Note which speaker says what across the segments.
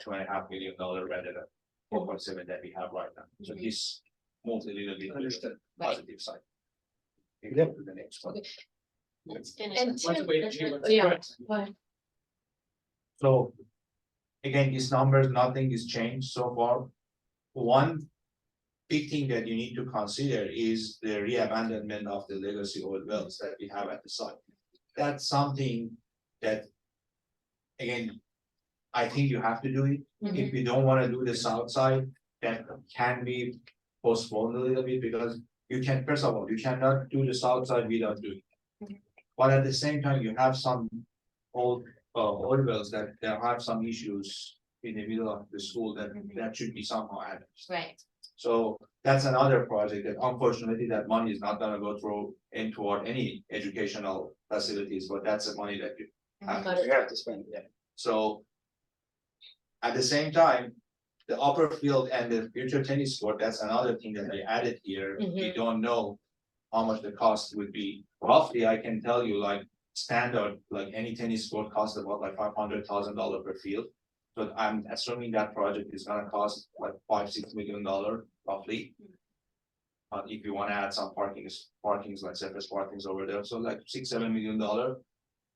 Speaker 1: two and a half million dollar rather than four point seven that we have right now. So
Speaker 2: Mhm.
Speaker 1: this moves a little bit. to the
Speaker 3: Understood.
Speaker 1: Positive side. Maybe
Speaker 3: Yeah.
Speaker 1: go to the next one.
Speaker 2: Let's finish.
Speaker 4: And
Speaker 2: this.
Speaker 4: Let's
Speaker 2: Tim-
Speaker 4: wait, Jim, let's
Speaker 2: Yeah.
Speaker 4: correct.
Speaker 2: Well,
Speaker 1: So. Again, these numbers, nothing is changed so far. One. Big thing that you need to consider is the reabandonment of the legacy oil wells that we have at the site. That's something that. Again. I think you have to do it.
Speaker 2: mhm.
Speaker 1: If you don't wanna do the south side, that can be postponed a little bit because you can, first of all, you cannot do the south side without doing. it. But at the same time, you have some old, uh, old wells that, that have some issues in the middle of the school that,
Speaker 2: Mhm.
Speaker 1: that should be somehow addressed.
Speaker 2: Right,
Speaker 1: So that's another project that unfortunately that money is not gonna go through and toward any educational facilities, but that's the money that you have
Speaker 2: Got
Speaker 1: to
Speaker 2: it.
Speaker 3: We have to spend, yeah.
Speaker 1: so. At the same time, the upper field and the future tennis court, that's another thing that they added here, we
Speaker 2: Mhm.
Speaker 1: don't know. How much the cost would be, roughly, I can tell you like standard, like any tennis court costs about like five hundred thousand dollar per field. But I'm assuming that project is gonna cost like five, six million dollar roughly. But if you wanna add some parkings, parkings like surface parkings over there, so like six, seven million dollar.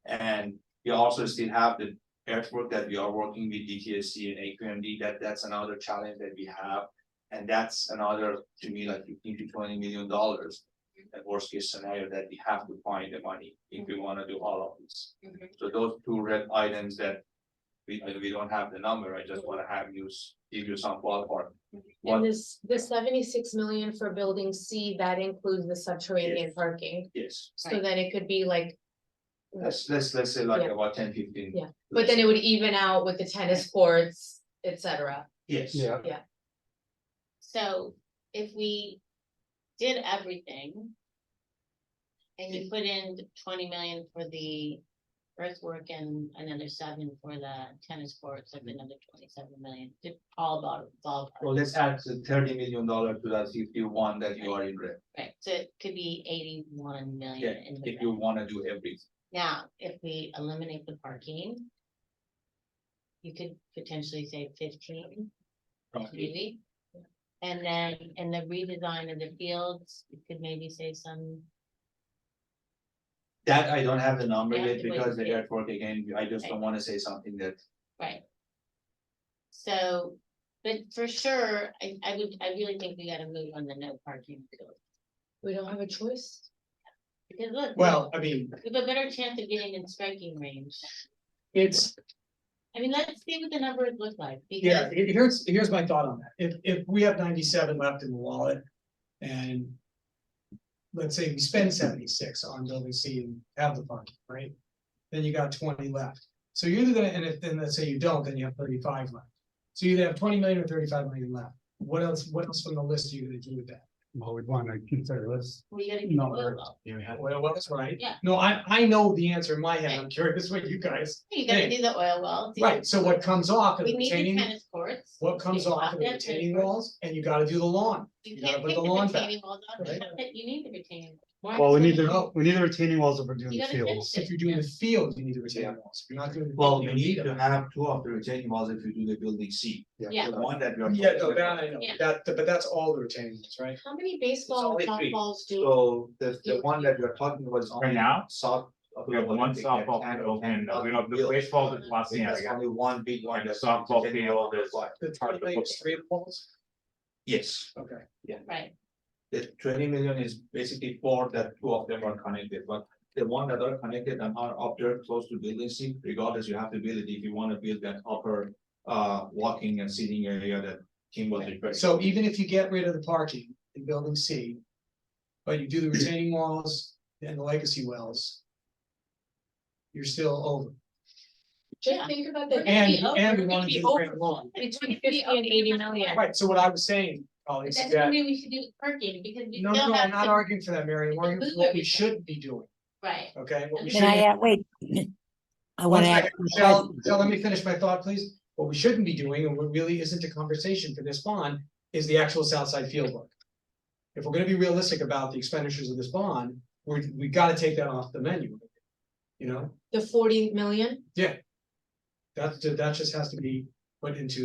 Speaker 1: And we also still have the earthwork that we are working with DTSC and AQMD, that that's another challenge that we have. And that's another, to me, like fifteen to twenty million dollars. At worst case scenario that we have to find the money if we wanna do all of this.
Speaker 2: Mhm.
Speaker 1: So those two red items that. We, I- we don't have the number, I just wanna have you, s- give you some ballpark. What-
Speaker 4: And this, the seventy-six million for building C, that includes the subterranean parking,
Speaker 1: Yes,
Speaker 4: so
Speaker 2: Right.
Speaker 4: then it could be like.
Speaker 1: let's, let's, let's say like
Speaker 4: Yeah.
Speaker 1: about ten, fifteen.
Speaker 4: Yeah. But then it would even out with the tennis courts, et cetera.
Speaker 1: Yes.
Speaker 3: Yeah.
Speaker 2: so if we did everything. And you put in twenty million for the earthwork and another seven for the tennis courts, like another twenty-seven million, Just all about,
Speaker 1: Well,
Speaker 2: ballpark.
Speaker 1: let's add the thirty million dollar to that fifty-one that you are in red,
Speaker 2: Right, so it could be eighty-one
Speaker 1: yeah,
Speaker 2: million in the
Speaker 1: if
Speaker 2: red.
Speaker 1: you wanna do everything.
Speaker 2: Now, if we eliminate the parking. You could potentially save fifteen, maybe. And then, in the redesign of the fields, you could maybe save some,
Speaker 1: That I don't have the number
Speaker 2: We have
Speaker 1: yet
Speaker 2: to wait
Speaker 1: because the
Speaker 2: and see.
Speaker 1: artwork again, I just don't wanna say something that,
Speaker 2: right? So, but for sure, I, I would, I really think we gotta move on the no parking. field.
Speaker 4: We don't have a choice.
Speaker 2: Because look.
Speaker 3: Well, I mean,
Speaker 2: We have a better chance of getting in striking range.
Speaker 3: it's,
Speaker 2: I mean, let's see what the numbers look like,
Speaker 3: yeah,
Speaker 2: because,
Speaker 3: he- here's, here's my thought on that. If, if we have ninety-seven left in the wallet and. Let's say we spend seventy-six on building C and have the parking, right? Then you got twenty left. So you're either gonna, and if, then let's say you don't, then you have thirty-five left. So you either have twenty million or thirty-five million left. What else, what else from the list are you gonna do with that?
Speaker 5: Well, we'd wanna consider this
Speaker 2: we gotta. keep
Speaker 5: number.
Speaker 2: low.
Speaker 5: You have-
Speaker 3: Well, that's right.
Speaker 2: Yeah.
Speaker 3: No, I, I know the answer in my head. I'm curious what you guys.
Speaker 2: You gotta do the oil well. do the-
Speaker 3: Right, so what comes off of
Speaker 2: We
Speaker 3: the
Speaker 2: need the
Speaker 3: retaining,
Speaker 2: tennis courts.
Speaker 3: what comes
Speaker 2: We
Speaker 3: off
Speaker 2: want
Speaker 3: of the
Speaker 2: that
Speaker 3: retaining
Speaker 2: tennis court.
Speaker 3: walls, and you gotta do the lawn.
Speaker 2: You
Speaker 3: You gotta
Speaker 2: can't
Speaker 3: put
Speaker 2: take
Speaker 3: the
Speaker 2: the
Speaker 3: lawn back,
Speaker 2: retaining walls out,
Speaker 3: right?
Speaker 2: except that you need the retaining. wall.
Speaker 5: Well, we need
Speaker 2: Why?
Speaker 5: the, we need the retaining walls if we're doing
Speaker 2: You
Speaker 5: the
Speaker 2: gotta finish
Speaker 5: fields.
Speaker 2: it.
Speaker 3: If you're doing the field, you need the retaining walls, if you're not doing. the
Speaker 1: well,
Speaker 3: field,
Speaker 1: you
Speaker 3: don't
Speaker 1: need to
Speaker 3: them.
Speaker 1: have two of the retaining walls if you do the building C.
Speaker 2: Yeah.
Speaker 1: The one that we are.
Speaker 3: Yeah, no,
Speaker 1: talking
Speaker 3: that
Speaker 1: about.
Speaker 3: I know,
Speaker 2: Yeah.
Speaker 3: that, but that's all the retaining walls, right?
Speaker 4: How many baseball
Speaker 1: It's
Speaker 4: and
Speaker 1: only three.
Speaker 4: softballs do?
Speaker 1: So the, the one that we're talking about is
Speaker 6: Right
Speaker 1: only
Speaker 6: now,
Speaker 1: south. of
Speaker 6: we have
Speaker 1: the
Speaker 6: one
Speaker 1: Olympic, that
Speaker 6: softball
Speaker 1: can-
Speaker 6: field and uh,
Speaker 1: cannot
Speaker 6: we have
Speaker 1: be
Speaker 6: the
Speaker 1: built.
Speaker 6: baseball and Los
Speaker 1: There's
Speaker 6: Angeles.
Speaker 1: only one big one.
Speaker 6: And the
Speaker 1: that's
Speaker 6: softball
Speaker 1: retaining
Speaker 6: field
Speaker 1: wall.
Speaker 6: is-
Speaker 3: The
Speaker 6: Part
Speaker 3: twenty
Speaker 6: of the
Speaker 3: million
Speaker 6: book.
Speaker 3: is three walls,
Speaker 1: Yes,
Speaker 3: okay.
Speaker 2: Right,
Speaker 1: the twenty million is basically four that two of them are connected, but. The one that are connected and are up there close to building C, regardless, you have to build it if you wanna build that upper. Uh, walking and sitting area that Kim was referring.
Speaker 3: So even if you get rid of the parking in building C. But you do the retaining walls and the legacy wells. You're still over.
Speaker 2: Yeah.
Speaker 4: Just think about the.
Speaker 2: gonna
Speaker 3: And,
Speaker 2: be over,
Speaker 3: and
Speaker 2: we're
Speaker 3: we
Speaker 2: gonna
Speaker 3: wanna
Speaker 2: be
Speaker 3: do the grand lawn.
Speaker 4: Between fifty and eighty million.
Speaker 3: Right, so what I was saying,
Speaker 2: but
Speaker 3: colleagues,
Speaker 2: that's
Speaker 3: is
Speaker 2: the
Speaker 3: that,
Speaker 2: way we should do parking, because we
Speaker 3: no,
Speaker 2: still
Speaker 3: no, no,
Speaker 2: have
Speaker 3: I'm not
Speaker 2: to,
Speaker 3: arguing for that, Mary, I'm arguing
Speaker 2: move
Speaker 3: for what we
Speaker 2: everything.
Speaker 3: should be doing,
Speaker 2: right,
Speaker 3: okay? What we
Speaker 2: Can
Speaker 7: Can
Speaker 3: should
Speaker 7: I, uh, wait, I
Speaker 3: One
Speaker 7: wanna ask.
Speaker 3: second,
Speaker 7: a
Speaker 3: Michelle,
Speaker 7: question.
Speaker 3: Michelle, let me finish my thought, please. What we shouldn't be doing, and what really isn't a conversation for this bond, is the actual south side field work. If we're gonna be realistic about the expenditures of this bond, we, we gotta take that off the menu. You know,
Speaker 4: The forty million?
Speaker 3: that, that just has to be put into